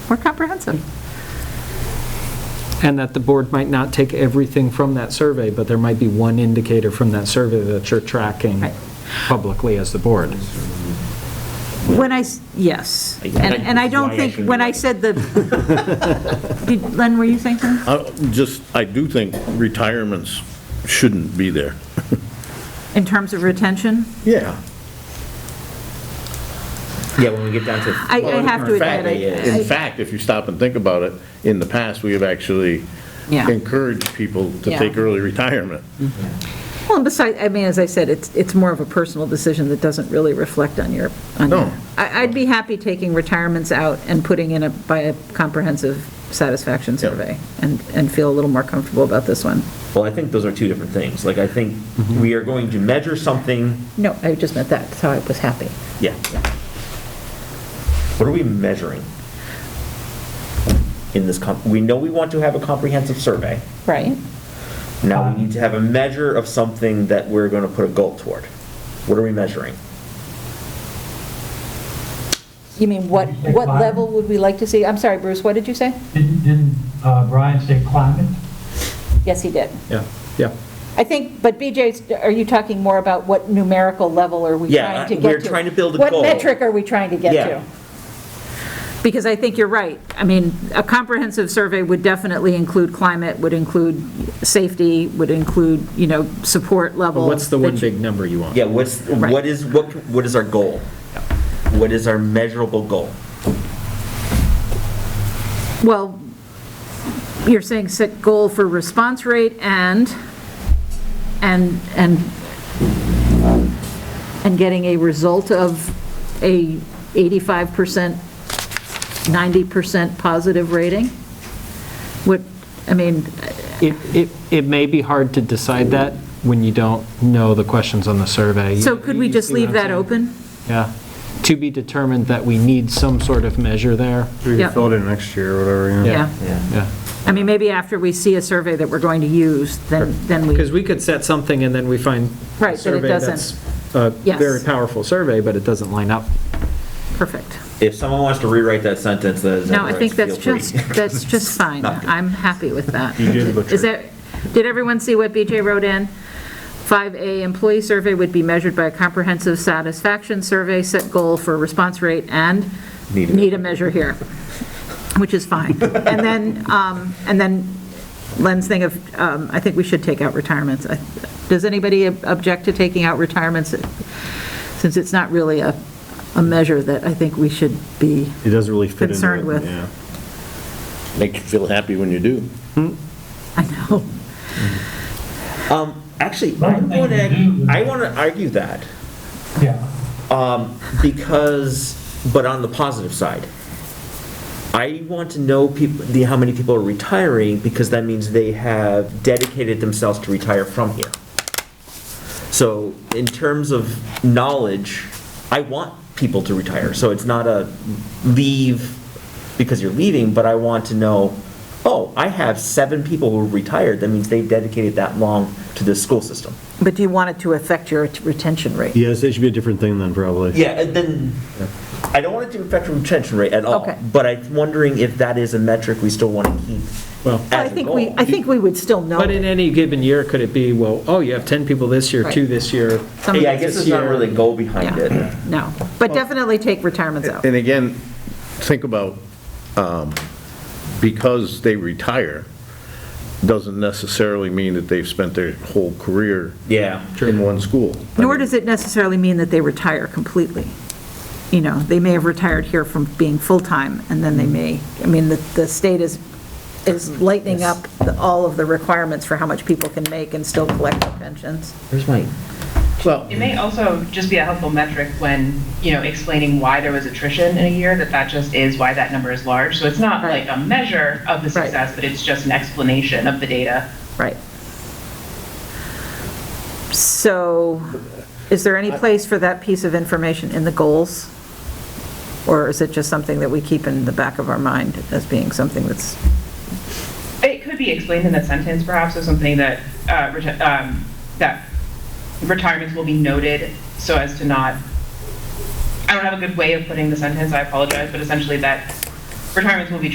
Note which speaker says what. Speaker 1: more comprehensive.
Speaker 2: And that the board might not take everything from that survey, but there might be one indicator from that survey that you're tracking
Speaker 1: Right.
Speaker 2: publicly as the board.
Speaker 1: When I, s- yes. And and I don't think, when I said the, Did- Len, were you saying something?
Speaker 3: I- Just, I do think retirements shouldn't be there.
Speaker 1: In terms of retention?
Speaker 3: Yeah.
Speaker 4: Yeah, when we get down to.
Speaker 1: I I have to
Speaker 4: In fact,
Speaker 1: admit, I-
Speaker 3: In
Speaker 1: I-
Speaker 3: fact, if you stop and think about it, in the past, we have actually
Speaker 1: yeah.
Speaker 3: encouraged people to
Speaker 1: Yeah.
Speaker 3: take early retirement.
Speaker 1: Well, and besides, I mean, as I said, it's, it's more of a personal decision that doesn't really reflect on your, on
Speaker 3: No.
Speaker 1: your. I- I'd be happy taking retirements out and putting in a, by a comprehensive satisfaction survey and, and feel a little more comfortable about this one.
Speaker 4: Well, I think those are two different things. Like, I think we are going to measure something,
Speaker 1: No, I just meant that, so I was happy.
Speaker 4: yeah. What are we measuring? In this, com- we know we want to have a comprehensive survey.
Speaker 1: Right?
Speaker 4: Now we need to have a measure of something that we're going to put a goal toward. What are we measuring?
Speaker 1: You mean, what,
Speaker 5: Did you say
Speaker 1: what
Speaker 5: climate?
Speaker 1: level would we like to see? I'm sorry, Bruce, what did you say?
Speaker 5: Didn't didn't, uh, Brian say climate?
Speaker 1: Yes, he did.
Speaker 2: Yeah, yeah.
Speaker 1: I think, but BJ's, are you talking more about what numerical level are we
Speaker 4: Yeah,
Speaker 1: trying to
Speaker 4: I-
Speaker 1: get to?
Speaker 4: we're trying to build a
Speaker 1: What
Speaker 4: goal.
Speaker 1: metric are we trying to get
Speaker 4: Yeah.
Speaker 1: to? Because I think you're right. I mean, a comprehensive survey would definitely include climate, would include safety, would include, you know, support level.
Speaker 2: What's the one
Speaker 1: that you-
Speaker 2: big number you want?
Speaker 4: Yeah, what's, what is, what, what is our goal? What is our measurable goal?
Speaker 1: Well, you're saying set goal for response rate and, and, and, and getting a result of a 85%, 90% positive rating? What, I mean,
Speaker 2: It, it, it may be hard to decide that when you don't know the questions on the survey.
Speaker 1: so could we
Speaker 2: You- you
Speaker 1: just
Speaker 2: see what
Speaker 1: leave
Speaker 2: I'm
Speaker 1: that
Speaker 2: saying?
Speaker 1: open?
Speaker 2: Yeah. To be determined that we need some sort of measure there.
Speaker 6: We
Speaker 1: Yeah.
Speaker 6: can fill it in next year or whatever, yeah.
Speaker 1: Yeah.
Speaker 2: Yeah.
Speaker 1: I mean, maybe after we see a survey that we're going to use, then, then we,
Speaker 2: Because we could set something and then we find. a
Speaker 1: Right, that it
Speaker 2: survey
Speaker 1: doesn't.
Speaker 2: that's A
Speaker 1: Yes.
Speaker 2: very powerful survey, but it doesn't line up.
Speaker 1: perfect.
Speaker 4: If someone wants to rewrite that sentence, that is.
Speaker 1: No, I think that's
Speaker 4: feel
Speaker 1: just,
Speaker 4: free.
Speaker 1: that's just fine. I'm happy with that.
Speaker 6: You did butcher
Speaker 1: Is that, did everyone see what BJ wrote in? 5A, employee survey would be measured by a comprehensive satisfaction survey, set goal for response rate, and
Speaker 4: Need a-
Speaker 1: need a measure here, which is fine. And then, um, and then Len's thing of, um, I think we should take out retirements. I- Does anybody ob- object to taking out retirements, since it's not really a, a measure that I think we should be
Speaker 6: It doesn't really fit into it.
Speaker 1: Concerned with.
Speaker 6: yeah.
Speaker 3: Make you feel happy when you do.
Speaker 1: I know.
Speaker 4: Um, actually, I want to, I want to argue that,
Speaker 5: Yeah.
Speaker 4: because, but on the positive side. I want to know people, the, how many people are retiring, because that means they have dedicated themselves to retire from here. So in terms of knowledge, I want people to retire, so it's not a leave because you're leaving, but I want to know, oh, I have seven people who retired, that means they've dedicated that long to this school system.
Speaker 1: But do you want it to affect your retention rate?
Speaker 6: Yes, it should be a different thing then, probably.
Speaker 4: Yeah, and then, I don't want it to affect retention rate at all,
Speaker 1: Okay.
Speaker 4: but I'm wondering if that is a metric we still want to keep
Speaker 2: Well,
Speaker 1: I
Speaker 4: as a
Speaker 1: think we,
Speaker 4: goal.
Speaker 1: I think we would still know.
Speaker 2: but in any given year, could it be, well, oh, you have 10 people this year,
Speaker 1: Right.
Speaker 2: two this year,
Speaker 1: Some-
Speaker 4: Yeah, I guess there's not really a goal behind
Speaker 1: Yeah.
Speaker 4: it.
Speaker 1: No, but definitely take retirements out.
Speaker 3: Oh. And again, think about, um, because they retire, doesn't necessarily mean that they've spent their whole career
Speaker 4: Yeah.
Speaker 3: in one school.
Speaker 1: Nor does it necessarily mean that they retire completely. You know, they may have retired here from being full-time, and then they may, I mean, the, the state is, is lightening up the- all of the requirements for how much people can make and still collect their pensions.
Speaker 4: Where's my?
Speaker 3: Well,
Speaker 7: It may also just be a helpful metric when, you know, explaining why there was attrition in a year, that that just is why that number is large. So it's not
Speaker 1: Right.
Speaker 7: like a measure of the
Speaker 1: Right.
Speaker 7: success, but it's just an explanation of the data.
Speaker 1: Right. So, is there any place for that piece of information in the goals? Or is it just something that we keep in the back of our mind as being something that's,
Speaker 7: It could be explained in the sentence perhaps as something that, uh, reti- um, that retirements will be noted so as to not, I don't have a good way of putting the sentence, I apologize, but essentially that retirements will be